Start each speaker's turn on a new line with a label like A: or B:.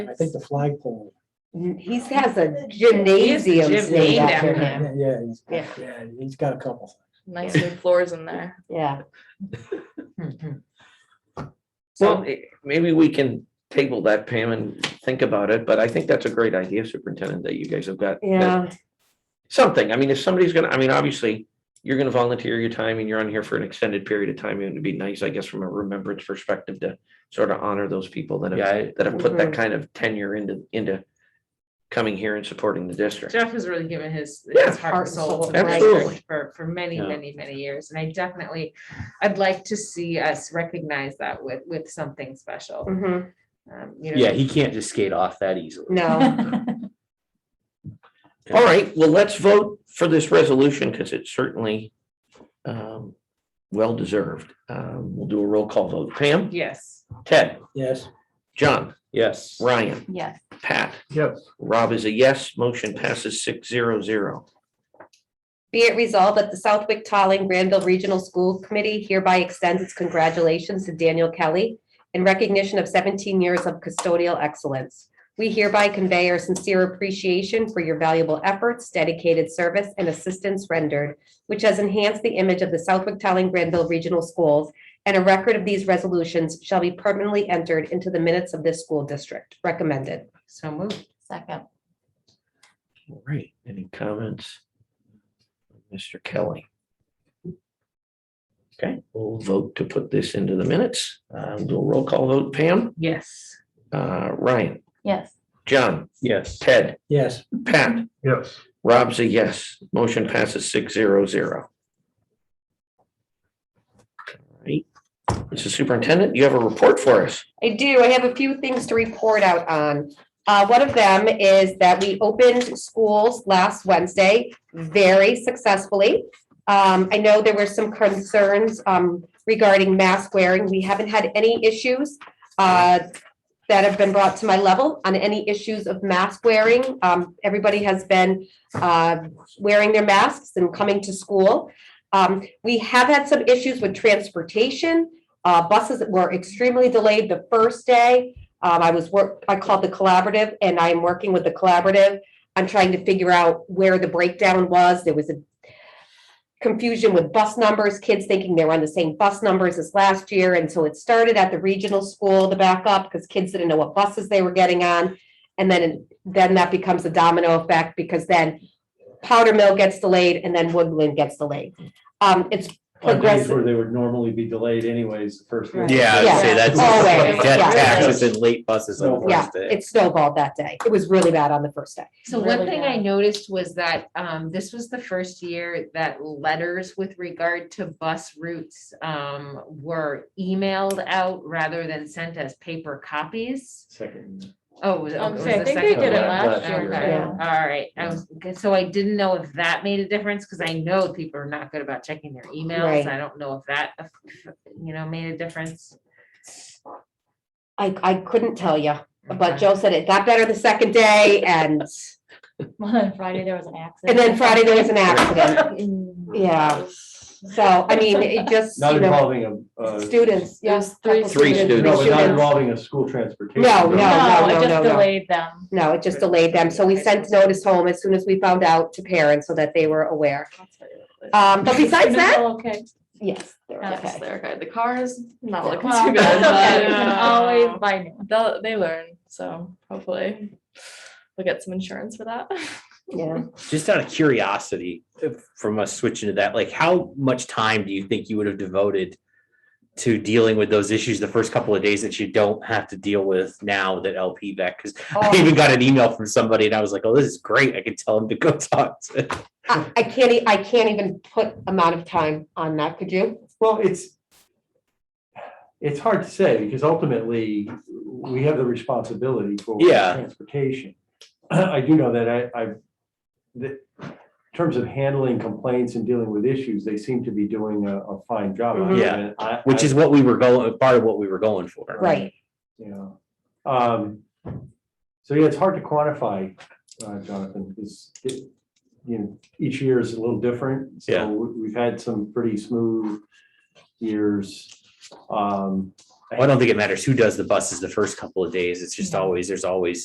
A: I think the flagpole.
B: He has a gymnasium named
C: gym named
B: after
C: after
B: him.
C: Yeah.
A: Yeah, yeah, he's,
B: Yeah.
A: yeah, he's got a couple.
C: Nice new floors in there.
B: Yeah.
D: Well, eh, maybe we can table that, Pam, and think about it, but I think that's a great idea, Superintendent, that you guys have got. that-
B: Yeah.
D: Something, I mean, if somebody's gonna, I mean, obviously, you're gonna volunteer your time and you're on here for an extended period of time, it would be nice, I guess, from a remembrance perspective to sort of honor those people that
E: Yeah,
D: have,
E: I-
D: that have put
B: Mhm.
D: that kind of tenure into, into coming here and supporting the district.
F: Jeff has really given his,
D: Yeah.
F: his heart and soul to the
D: Absolutely.
F: district for, for many,
E: Yeah.
F: many, many years. And I definitely, I'd like to see us recognize that with, with something special.
B: Mhm.
F: Um, you know,
E: Yeah, he can't just skate off that easily.
B: No.
D: All right, well, let's vote for this resolution because it's certainly um, well-deserved. Um, We'll do a roll call vote. Pam,
F: Yes.
D: Ted,
A: Yes,
D: John,
E: Yes.
D: Ryan,
C: Yes.
D: Pat. Yes. Rob is a yes. Motion passes six zero zero.
B: Be it resolved that the Southwick Tolling Granville Regional School Committee hereby extends its congratulations to Daniel Kelly in recognition of 17 years of custodial excellence. We hereby convey our sincere appreciation for your valuable efforts, dedicated service, and assistance rendered, which has enhanced the image of the Southwick Tolling Granville Regional Schools, and a record of these resolutions shall be permanently entered into the minutes of this school district. Recommended.
F: So moved.
C: Second.
D: All right, any comments? Mr. Kelly? Okay, we'll vote to put this into the minutes. Uh, We'll do a roll call vote. Pam,
F: Yes.
D: uh, Ryan,
C: Yes.
D: John,
E: Yes.
D: Ted,
A: yes,
D: Pat.
G: Yes,
D: Rob's a yes. Motion passes six zero zero. Mr. Superintendent, you have a report for us.
B: I do. I have a few things to report out on. Uh, one of them is that we opened schools last Wednesday very successfully. Um, I know there were some concerns, um, regarding mask wearing. We haven't had any issues, uh, that have been brought to my level on any issues of mask wearing. Um, everybody has been, uh, wearing their masks and coming to school. Um, we have had some issues with transportation. Uh, buses were extremely delayed the first day. Um, I was work, I called the collaborative and I'm working with the collaborative. I'm trying to figure out where the breakdown was. There was a confusion with bus numbers, kids thinking they were on the same bus numbers as last year. And so it started at the regional school, the backup, because kids didn't know what buses they were getting on. And then, then that becomes a domino effect because then Powder Mill gets delayed and then Woodland gets delayed. Um, it's
H: on days
B: progressive.
H: where they would normally be delayed anyways, the first.
C: Right.
E: Yeah, I'd
B: Yeah,
E: say that's.
B: always,
E: Dead
B: yeah.
E: taxes and late buses on the
B: Yeah,
E: first day.
B: it snowballed that day. It was really bad on the first day.
F: So one
C: Really
F: thing I
C: bad.
F: noticed was that, um, this was the first year that letters with regard to bus routes, um, were emailed out rather than sent as paper copies.
H: Second.
F: Oh, was it-
C: Um,
F: was
C: so I
F: the
C: think they
F: second
C: did
E: it
F: one?
E: last year,
F: Okay,
C: yeah.
F: All right, I was, okay, so I didn't know if that made a difference, because I know people are not good about checking their
B: Right.
F: emails, I don't know if that, you know, made a difference.
B: I, I couldn't tell you, but
F: Okay.
B: Joe said it got better the second day and,
C: Well, then Friday there was an
B: and
C: accident.
B: then Friday there was an accident.
C: Mm.
B: Yeah. So, I mean, it just,
H: Not
B: you know,
H: involving a. uh,
B: students, yes.
C: three
D: Three
H: No, but not
B: students.
H: involving a school transportation.
B: No, no,
C: No,
B: no,
C: it
B: no,
C: just
B: no.
C: delayed them.
B: No, it just delayed them. So we sent notice home as soon as we found out to parents so that they were aware. Um, but besides
C: Students
B: that,
C: all Okay.
B: yes, they're
C: Yes,
B: okay.
I: They're good. The car is not looking
C: Well,
I: too
C: that's
I: bad,
C: okay.
F: Yeah.
C: Always by noon.
I: but they'll, they learn. So hopefully we'll get some insurance for that.
B: Yeah.
E: Just out of curiosity, if- from us switching to that, like how much time do you think you would have devoted to dealing with those issues the first couple of days that you don't have to deal with now that LP back? Because I
B: Oh.
E: even got an email from somebody and I was like, oh, this is great. I can tell him to go talk to.
B: I, I can't, e- I can't even put amount of time on that. Could you?
H: Well, it's. It's hard to say because ultimately we have the responsibility for.
E: Yeah.
H: Transportation. I do know that I, I, that in terms of handling complaints and dealing with issues, they seem to be doing a, a fine job. on it,
E: Mm-hmm. Yeah.
H: and I-
E: Which
H: I-
E: is what we were going, part of what we were going for.
B: Right.
H: Yeah. Um, so yeah, it's hard to quantify, uh, Jonathan, because it, you know, each year is a little different. So
E: Yeah.
H: we- we've had some pretty smooth years. Um,
B: Mm-hmm.
E: I don't think it matters who does the buses the first couple of days. It's just always, there's always